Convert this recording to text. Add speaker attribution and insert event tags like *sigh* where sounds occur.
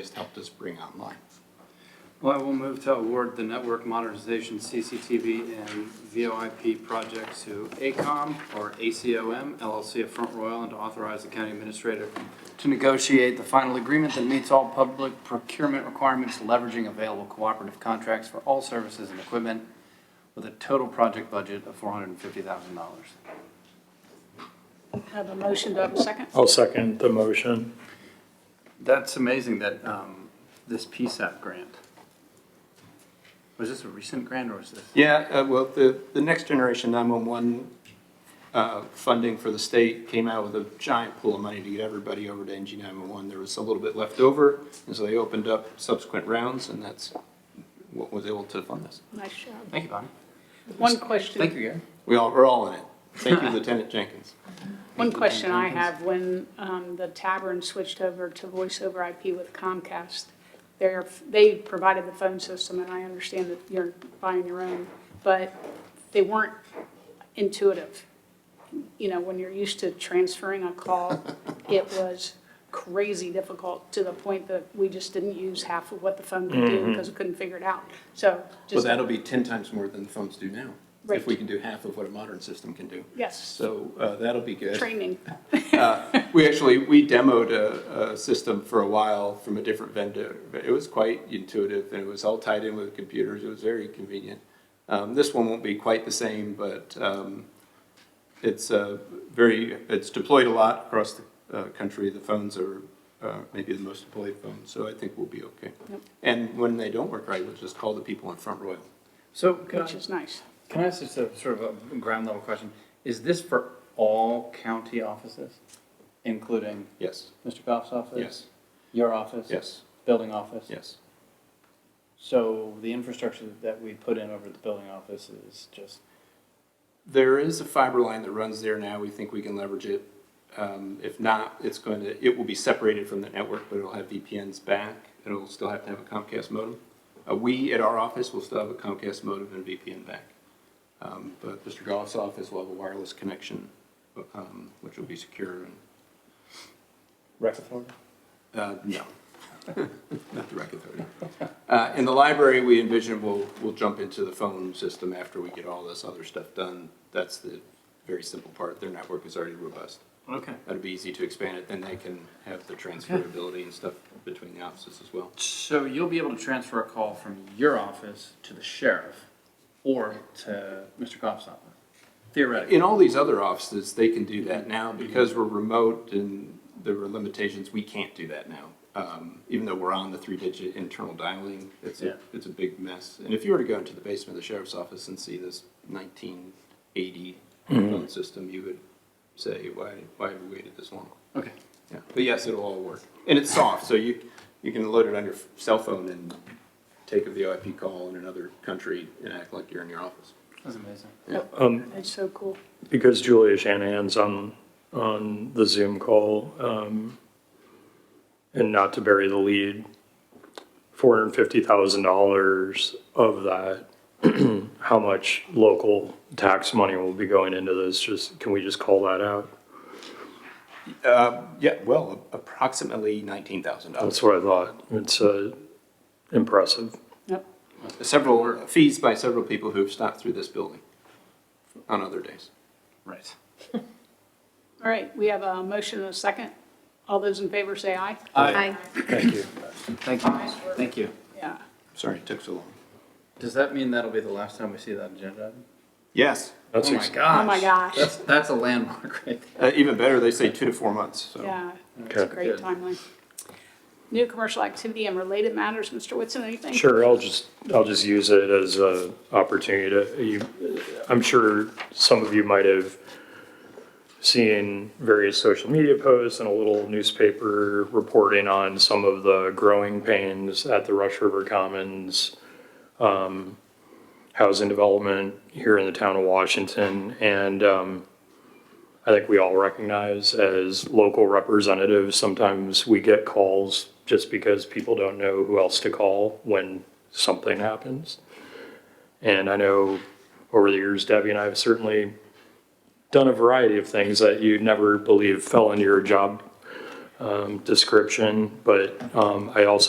Speaker 1: just helped us bring online.
Speaker 2: Well, I will move to award the network modernization CCTV and VoIP projects to ACOM or ACOM LLC of Front Royal and to authorize the county administrator to negotiate the final agreement that meets all public procurement requirements, leveraging available cooperative contracts for all services and equipment with a total project budget of four hundred and fifty thousand dollars.
Speaker 3: Have a motion, do I have a second?
Speaker 4: I'll second the motion.
Speaker 2: That's amazing that, um, this PSAP grant. Was this a recent grant or was this?
Speaker 1: Yeah, uh, well, the, the Next Generation 911 uh, funding for the state came out with a giant pool of money to get everybody over to NG 911. There was a little bit left over, and so they opened up subsequent rounds, and that's what was able to fund this.
Speaker 3: Nice job.
Speaker 2: Thank you, Bonnie.
Speaker 3: One question.
Speaker 2: Thank you, Gary.
Speaker 1: We all, we're all in it. Thank you, Lieutenant Jenkins.
Speaker 3: One question I have, when um, the tavern switched over to voice over IP with Comcast, they're, they provided the phone system, and I understand that you're buying your own, but they weren't intuitive. You know, when you're used to transferring a call, it was crazy difficult to the point that we just didn't use half of what the phone could
Speaker 4: Mm-hmm.
Speaker 3: do because we couldn't figure it out.
Speaker 1: *laughs*
Speaker 3: So
Speaker 1: Well,
Speaker 3: just,
Speaker 1: that'll be 10 times more than the phones do now, if
Speaker 3: Right.
Speaker 1: we can do half of what a modern system can do.
Speaker 3: yes,
Speaker 1: So uh, that'll be good.
Speaker 3: training.
Speaker 1: We actually, we demoed a, a system for a while from a different vendor, but it was quite intuitive and it was all tied in with computers. It was very convenient. Um, this one won't be quite the same, but, um, it's, uh, very, it's deployed a lot across the, uh, country. The phones are, uh, maybe the most deployed phones, so I think we'll be okay.
Speaker 3: Yep.
Speaker 1: And when they don't work right, we'll just call the people in Front Royal.
Speaker 2: So uh, can I,
Speaker 3: Which is nice.
Speaker 2: can I ask just a sort of a ground level question? Is this for all county offices, including
Speaker 1: Yes,
Speaker 2: Mr. Goff's office?
Speaker 1: yes,
Speaker 2: Your office?
Speaker 1: yes,
Speaker 2: Building office?
Speaker 1: yes.
Speaker 2: So the infrastructure that we put in over at the building office is just,
Speaker 1: There is a fiber line that runs there now. We think we can leverage it. Um, if not, it's going to, it will be separated from the network, but it'll have VPNs back. It'll still have to have a Comcast modem. Uh, we at our office will still have a Comcast modem and VPN back. Um, but Mr. Goff's office will have a wireless connection, um, which will be secure and,
Speaker 4: Rec authority?
Speaker 1: uh, no. *laughs* Not the rec authority. Uh, in the library, we envision we'll, we'll jump into the phone system after we get all this other stuff done. That's the very simple part. Their network is already robust.
Speaker 2: okay.
Speaker 1: That'd be easy to expand it, then they can have the transferability and stuff between the offices as well.
Speaker 2: So you'll be able to transfer a call from your office to the sheriff or to Mr. Goff's office, theoretically?
Speaker 1: In all these other offices, they can do that now because we're remote and there were limitations, we can't do that now. Um, even though we're on the three-digit internal dialing, it's
Speaker 2: Yeah.
Speaker 1: a, it's a big mess. And if you were to go into the basement of the sheriff's office and see this nineteen eighty phone system, you would say, why, why have we waited this long?
Speaker 2: Okay.
Speaker 1: Yeah, but yes, it'll all work, and it's soft, so you you can load it on your cell phone and take a VoIP call in another country and act like you're in your office.
Speaker 2: That's amazing.
Speaker 3: That's so cool.
Speaker 4: Because Julia Shanahan's on, on the Zoom call, um, and not to bury the lead, four hundred and fifty thousand dollars of that, *clears throat* how much local tax money will be going into this? Just, can we just call that out?
Speaker 1: Yeah, well, approximately nineteen thousand
Speaker 4: That's
Speaker 1: dollars.
Speaker 4: what I thought. It's, uh, impressive.
Speaker 3: Yep.
Speaker 1: Several fees by several people who have stopped through this building on other days.
Speaker 2: Right.
Speaker 3: All right, we have a motion and a second. All those in favor say aye.
Speaker 5: Aye.
Speaker 4: Thank you.
Speaker 2: Thank you, thank you.
Speaker 3: Yeah.
Speaker 1: Sorry it took so long.
Speaker 2: Does that mean that'll be the last time we see that agenda item?
Speaker 1: Yes,
Speaker 4: That's
Speaker 2: oh my
Speaker 4: ex-
Speaker 2: gosh.
Speaker 3: Oh my gosh.
Speaker 2: That's that's a landmark right there.
Speaker 1: uh, even better, they say two to four months. So
Speaker 3: Yeah, it's a
Speaker 4: Okay.
Speaker 3: great timeline. New commercial activity and related matters, Mr. Whitson, anything?
Speaker 4: Sure, I'll just, I'll just use it as a opportunity to, you, I'm sure some of you might have seen various social media posts and a little newspaper reporting on some of the growing pains at the Rush River Commons um, housing development here in the town of Washington. And um, I think we all recognize as local representatives, sometimes we get calls just because people don't know who else to call when something happens. And I know over the years, Debbie and I have certainly done a variety of things that you never believe fell into your job um, description. But um, I also